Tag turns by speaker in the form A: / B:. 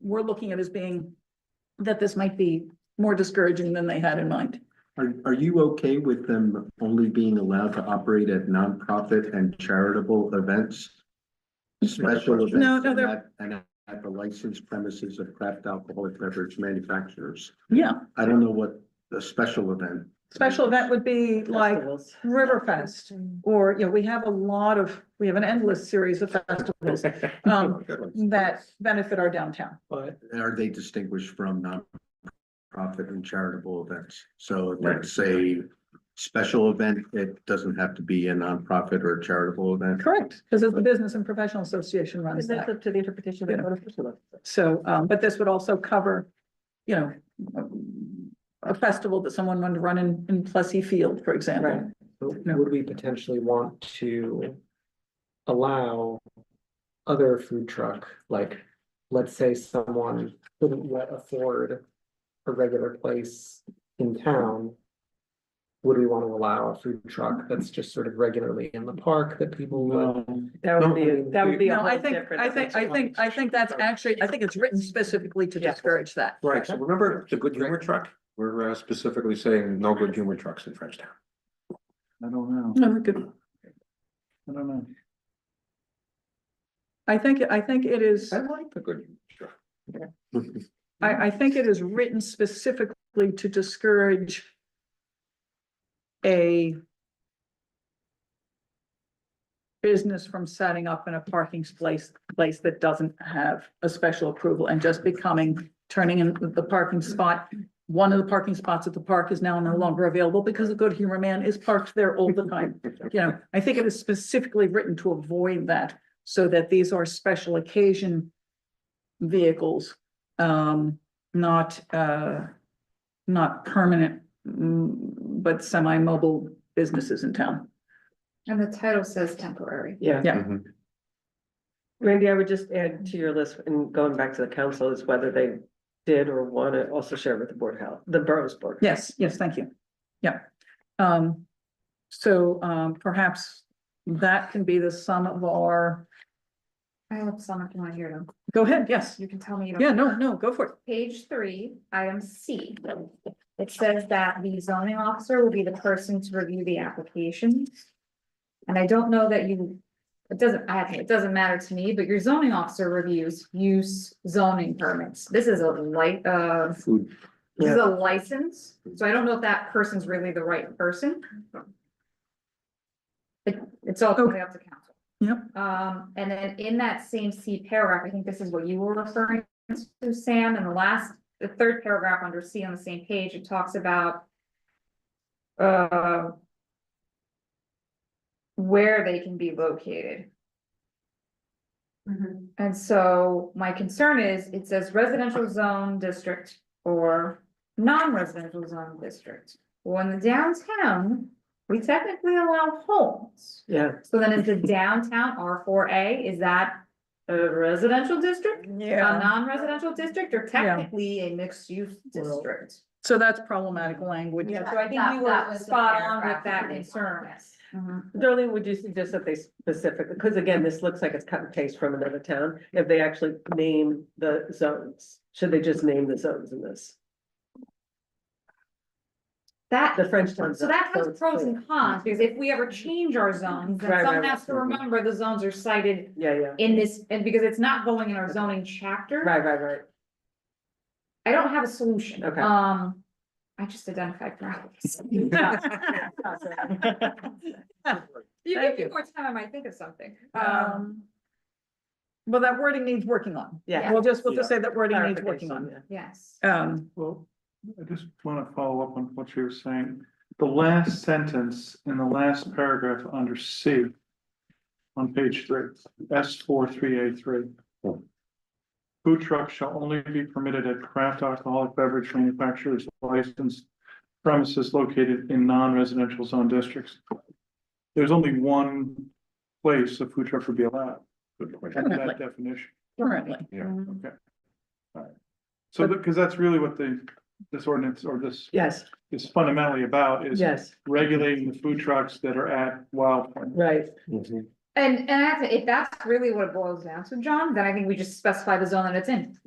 A: we're looking at as being that this might be more discouraging than they had in mind.
B: Are, are you okay with them only being allowed to operate at nonprofit and charitable events? Special events.
A: No, no, they're-
B: and at- And at the licensed premises of craft alcoholic beverage manufacturers.
A: Yeah,
B: I don't know what a special event.
A: special event would be like Riverfest, or, you know, we have a lot of, we have an endless series of festivals um, that benefit our downtown.
C: But
B: Are they distinguished from nonprofit and charitable events? So let's say special event, it doesn't have to be a nonprofit or a charitable event.
A: Correct, because it's the Business and Professional Association runs
D: Because that's
A: that.
D: up to the interpretation
A: Yeah.
D: of the code official.
A: So, um, but this would also cover, you know, um, a festival that someone wanted to run in, in Plessy Field, for
D: Right.
A: example.
C: would we potentially want to allow other food truck, like, let's say someone couldn't yet afford a regular place in town? Would we want to allow a food truck that's just sort of regularly in the park that people would?
D: That would be, a- that would be a
A: No, I
D: whole
A: think,
D: different.
A: I think, I think, I think that's actually, I think it's written specifically to
D: Yeah.
A: discourage that.
E: Right, so remember the good humor truck? We're uh, specifically saying no good humor trucks in Frenchtown.
B: I don't know.
A: No, good.
B: I don't know.
A: I think, I think it is.
E: I like the good humor truck.
A: I, I think it is written specifically to discourage a business from setting up in a parking place, place that doesn't have a special approval and just becoming, turning in the parking spot. One of the parking spots at the park is now no longer available because the Good Humor Man is parked there all the time. You know, I think it is specifically written to avoid that, so that these are special occasion vehicles um, not, uh, not permanent, mm, but semi-mobile businesses in town.
F: And the title says temporary.
D: Yeah.
A: Yeah.
C: Mm-hmm.
E: Mhm.
D: Randy, I would just add to your list and going back to the council is whether they did or want to also share with the board of health, the borough's board. of Health.
A: Yes, yes, thank you. Yeah. Um, so, um, perhaps that can be the sum of our,
F: I have some if you want to hear them.
A: go ahead, yes.
F: You can tell me. you don't-
A: Yeah, no, no, go for it.
F: Page three, item C. It says that the zoning officer will be the person to review the applications. And I don't know that you, it doesn't, I, it doesn't matter to me, but your zoning officer reviews use zoning permits. This is a light, uh,
E: Food,
F: this is a license, so I don't know if that person's really the right person. It, it's all totally up to council.
A: Yep.
F: Um, and then in that same C paragraph, I think this is what you were referring to, Sam, in the last, the third paragraph under C on the same page, it talks about. Uh. Where they can be located. And so my concern is, it says residential zone district or non-residential zone district. Well, in the downtown, we technically allow homes.
D: Yeah.
F: So then is the downtown R four A, is that a residential district? A
A: Um,
F: non-residential district or technically a mixed-use district?
A: So that's problematic language.
F: Yeah, so I think you
G: That- that
F: were
G: was the
F: spot on with
G: paragraph
F: that
G: we
F: concern.
G: wanted.
F: Mhm.
D: Darlene, would you suggest that they specifically, because again, this looks like it's cut and paste from another town, if they actually name the zones? Should they just name the zones in this?
F: That
D: The French town.
F: So that
D: zone,
F: has
D: so it's
F: pros
D: clear.
F: and cons, because if we ever change our zones,
D: Right,
F: then
D: right,
F: someone
D: right.
F: has to remember the zones are cited
D: Yeah, yeah.
F: in this, and because it's not going in our zoning chapter.
D: Right, right, right.
F: I don't have a solution.
D: Okay.
F: Um, I just identified problems. You
A: Thank
F: give me
A: you.
F: more time, I might think of something. Um,
A: Um, Well, that wording needs working on.
D: Yeah.
A: We'll just, we'll just say that wording needs working
D: Clarification,
A: on.
D: yeah.
F: yes.
A: Um,
H: Well, I just want to follow up on what you were saying. The last sentence in the last paragraph under C on page three, S four three A three.
E: Hmm.
H: Food trucks shall only be permitted at craft alcoholic beverage manufacturers licensed premises located in non-residential zone districts. There's only one place a food truck would be allowed,
E: good point.
H: under
A: Definitely.
H: that definition.
A: currently.
E: Yeah.
H: So, because that's really what the, this ordinance or this
D: Yes,
H: is fundamentally about is
D: yes,
H: regulating the food trucks that are at Wild Point.
D: right.
E: Mhm.
F: And, and I have to- if that's really what it boils down to, John, then I think we just specify the zone that it's in.